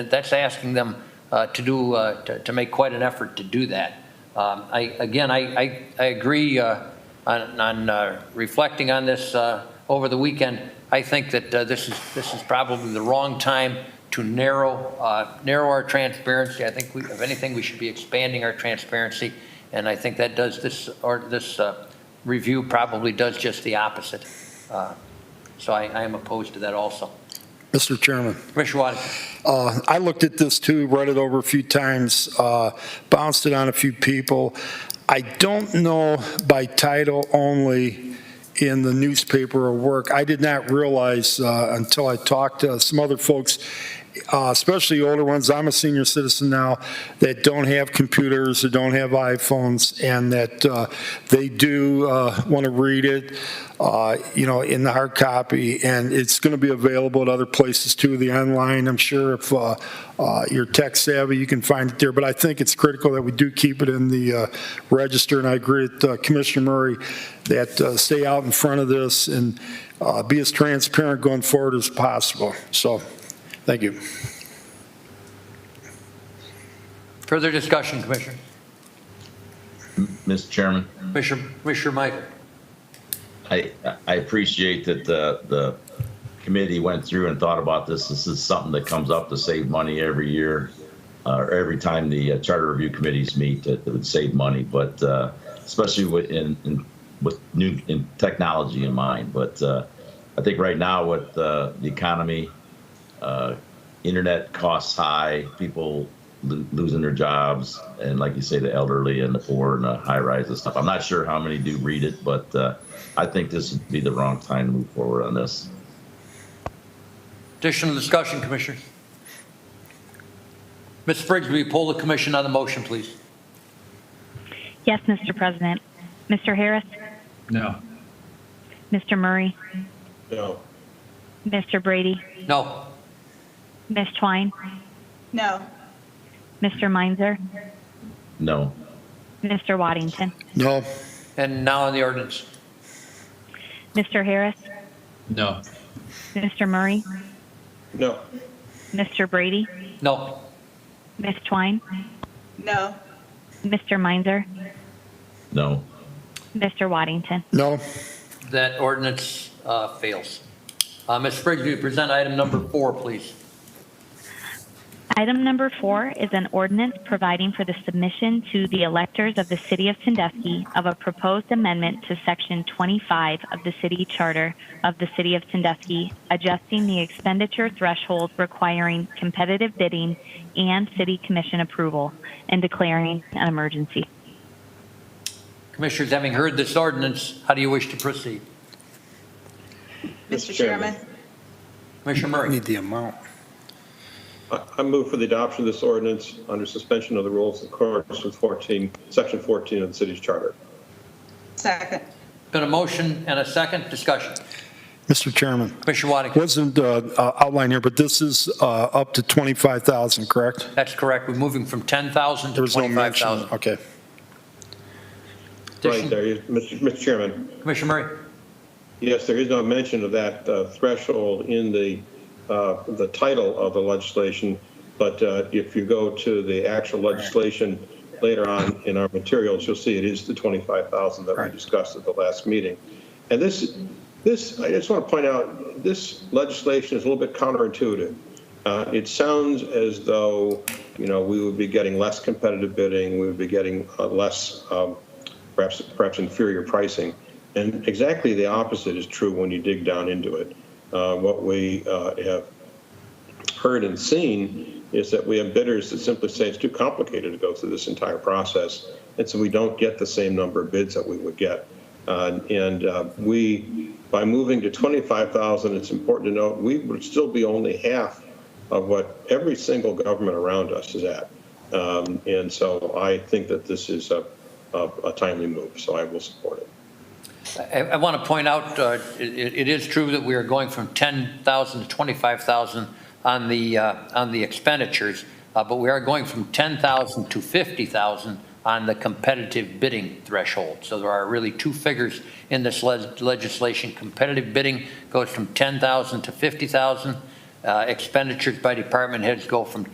That's asking them uh, to do, uh, to to make quite an effort to do that. Um, I, again, I, I- I agree uh, on on, uh, reflecting on this uh, over the weekend. I think that uh, this is, this is probably the wrong time to narrow, uh, narrow our transparency. I think, we- if anything, we should be expanding our transparency, and I think that does this, or this uh, review probably does just the opposite. Uh, So I, I am opposed to that also. Mr. Chairman, Commissioner Watkins? uh, I looked at this too, read it over a few times, uh, bounced it on a few people. I don't know by title only in the newspaper or work. I did not realize uh, until I talked to some other folks, uh, especially older ones, I'm a senior citizen now, that don't have computers, that don't have iPhones, and that uh, they do want to read it, uh, you know, in the hard copy, and it's going to be available at other places too, the online, I'm sure if uh, uh, you're tech savvy, you can find it there, but I think it's critical that we do keep it in the uh, register, and I agree with uh, Commissioner Murray, that uh, stay out in front of this and uh, be as transparent going forward as possible. So, thank you. Further discussion, Commissioner? Mr. Chairman, Commissioner, Commissioner Michael? I, I appreciate that the, the committee went through and thought about this. This is something that comes up to save money every year, uh, or every time the uh, charter review committees meet, that that would save money, but, uh, especially with, in, in, with new, in technology in mind. But, uh, I think right now with, uh, the economy, uh, internet costs high, people lo- losing their jobs, and like you say, the elderly and the poor and the high rise and stuff. I'm not sure how many do read it, but uh, I think this would be the wrong time to move forward on this. Additional discussion, Commissioners? Ms. Briggs, will you poll the commission on the motion, please? Yes, Mr. President. Mr. Harris? No. Mr. Murray? No. Mr. Brady? No. Ms. Twine? No. Mr. Meinzer? No. Mr. Waddington? No, And now on the ordinance. Mr. Harris? No. Mr. Murray? No. Mr. Brady? No. Ms. Twine? No. Mr. Meinzer? No. Mr. Waddington? no, That ordinance uh, fails. Uh, Ms. Briggs, will you present item number four, please? Item number four is an ordinance providing for the submission to the electors of the City of Sandusky of a proposed amendment to Section 25 of the City Charter of the City of Sandusky, adjusting the expenditure threshold requiring competitive bidding and City Commission approval, and declaring an emergency. Commissioners, having heard this ordinance, how do you wish to proceed? Mr. Chairman? Commissioner Murray? the amount. I I move for the adoption of this ordinance under suspension of the rules in accordance with 14, Section 14 of the city's charter. Second. Been a motion and a second discussion. Mr. Chairman, Commissioner Waddington? wasn't uh, uh, outlined here, but this is uh, up to 25,000, correct? That's correct. We're moving from 10,000 There to was no mention. 25,000. Okay. Right Addition- there, you- Mr. Mr. Chairman, Commissioner Murray? yes, there is no mention of that uh, threshold in the, uh, the title of the legislation, but uh, if you go to the actual legislation later on in our materials, you'll see it is the 25,000 that we discussed at the last meeting. And this, this, I just want to point out, this legislation is a little bit counterintuitive. Uh, It sounds as though, you know, we would be getting less competitive bidding, we would be getting uh, less, um, perhaps, perhaps inferior pricing. And exactly the opposite is true when you dig down into it. Uh, What we uh, have heard and seen is that we have bidders that simply say it's too complicated to go through this entire process, and so we don't get the same number of bids that we would get. Uh, And uh, we, by moving to 25,000, it's important to note, we would still be only half of what every single government around us is at. Um, And so I think that this is a a- a timely move, so I will support it. I, I want to point out, uh, it, it is true that we are going from 10,000 to 25,000 on the, uh, on the expenditures, uh, but we are going from 10,000 to 50,000 on the competitive bidding threshold. So there are really two figures in this le- legislation. Competitive bidding goes from 10,000 to 50,000. Uh, Expenditures by department heads go from